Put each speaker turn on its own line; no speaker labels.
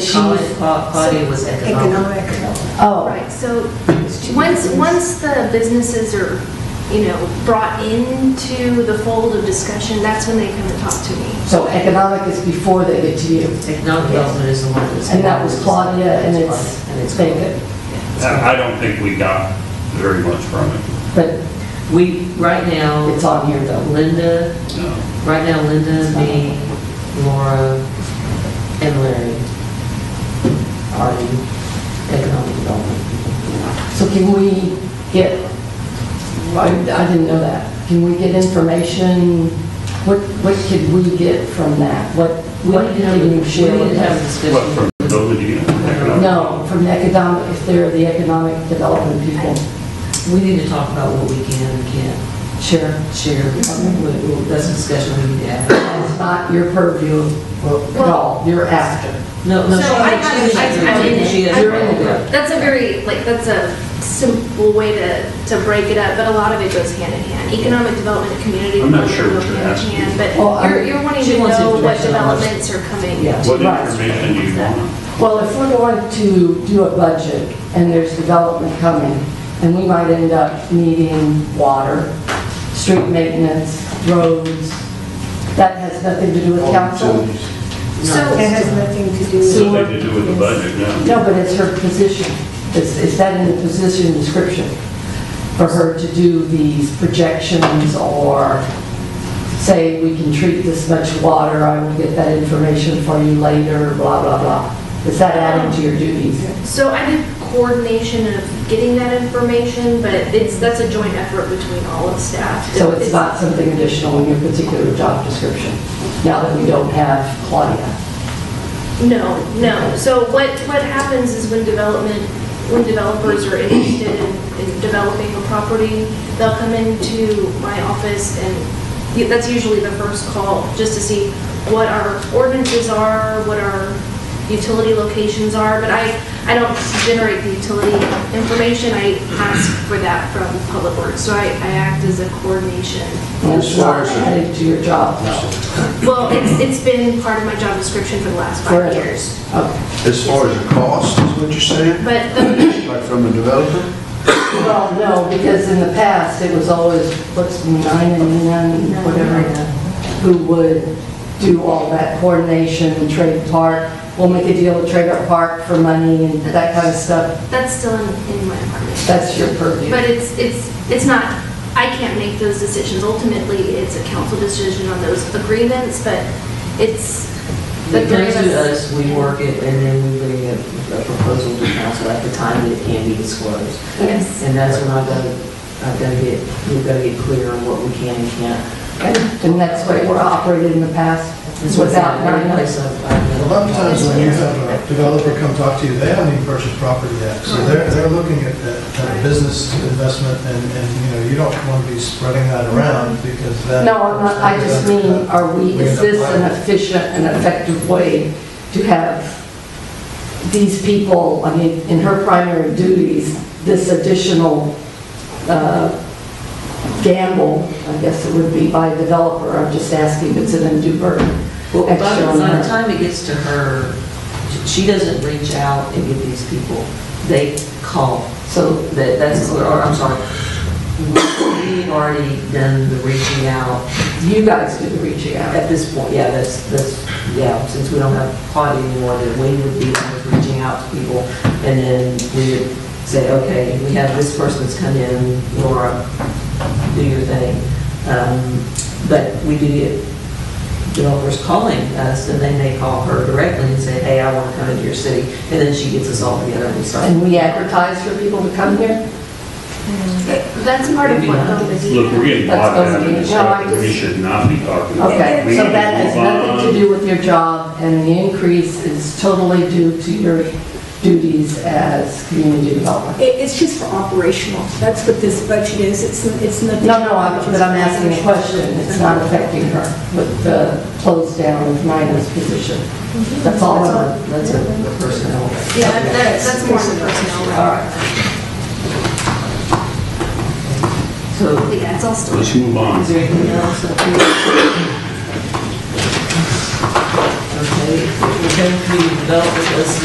chief
call it-
body was economic.
Oh,
Right, so once, once the businesses are, you know, brought into the fold of discussion, that's when they come and talk to me.
so economic is before they get to you.
Economic development is the one that was.
And that was Claudia and it's,
And it's
thank it.
I I don't think we got very much from it,
But
We, right now,
it's on here though.
Linda,
no.
right now Linda, me, Laura, and Larry are in economic development.
So can we get, I I didn't know that. Can we get information? What, what could we get from that? What,
We
what
need to have,
can you share
we need
with
to have a
us?
What,
discussion.
from those of you?
No, from the economic, if they're the economic development people.
We need to talk about what we can and can't
Sure.
share. We- we- That's a discussion we need to have.
It's not your purview at all. You're after.
No, no, she,
So I got-
she,
I- I didn't-
she, she,
I-
you're in the group.
That's a very, like, that's a simple way to, to break it up, but a lot of it goes hand in hand. Economic development, and community.
I'm not sure
development
what
go
you're
hand in
asking.
hand, But
Well, I-
you're, you're wanting
she
to
wants
know what
information on what's-
developments are coming.
Yeah.
What
Right.
information do you want?
Well, if we're going to do a budget and there's development coming, and we might end up needing water, street maintenance, roads, that has nothing to do with council?
So-
It has nothing to do with.
Something to do with the budget, no?
No, but it's her position. Is, is that in the position description? For her to do these projections or say, we can treat this much water, I will get that information for you later, blah, blah, blah. Is that added to your duties?
So I did coordination of getting that information, but it's, that's a joint effort between all of staff.
So it's not something additional in your particular job description, now that we don't have Claudia.
No, no. So what, what happens is when development, when developers are interested in in developing a property, they'll come into my office and y- that's usually the first call, just to see what our ordinances are, what our utility locations are. But I, I don't generate the utility information. I ask for that from Public Works. So I, I act as a coordination.
And it's not added to your job, though.
Well, it's, it's been part of my job description for the last five
Forever.
years.
Okay.
As far as the cost, is what you're saying,
But the
like from a developer?
Well, no, because in the past, it was always, what's nine and nine, whatever, who would do all that coordination and trade park, we'll make a deal with Trader Park for money and that kind of stuff.
That's still in, in my apartment.
That's your purview.
But it's, it's, it's not, I can't make those decisions. Ultimately, it's a council decision on those agreements, but it's the
It
three
comes
of
to us,
us.
we work it, and then we bring a a proposal to council at the time that it can be disclosed.
Yes.
And that's when I've got, I've got to get, we've got to get clear on what we can and can't.
And that's what we're operating in the past,
It's
without
without any
nine.
place of. uh,
A lot of times when you have a developer come talk to you, they haven't even purchased property yet. So they're, they're looking at that kind of business investment and, and, you know, you don't want to be spreading that around because that.
No, I'm not, I just mean, are we, is this an efficient and effective way to have these people, I mean, in her primary duties, this additional uh, gamble, I guess it would be by a developer, I'm just asking, it's an undue burden.
Well, by
Extra
the
on
by
her.
the time it gets to her, she doesn't reach out and get these people. They call. So that, that's, or, I'm sorry. We've already done the reaching out
You guys do the reaching out.
At this point, yeah, that's, that's, yeah, since we don't have Claudia anymore, that we would be kind of reaching out to people, and then we would say, okay, we have this person that's come in, Laura, do your thing. Um, But we do get developers calling us, and then they call her directly and say, hey, I want to come into your city, and then she gets us all together and we start.
And we advertise for people to come here?
That's part of what the
Look, we're getting bogged
That's
down in this
okay. No, I
stuff that we
just-
should not be talking about.
Okay,
We
so
need to
that has
move
nothing
on.
to do with your job, and the increase is totally due to your duties as community developer.
It, it's just for operational. That's what this budget is. It's, it's nothing.
No, no, I'm- but I'm asking a question, it's not affecting her with the close down of Midas position. Mm-hmm. That's all,
That's
I'm-
a- That's a a personnel.
Yeah, that, that's more than personnel.
all right.
So
But yeah, it's all still.
Let's move on.
Is there anything else up here? Okay, we're going to develop this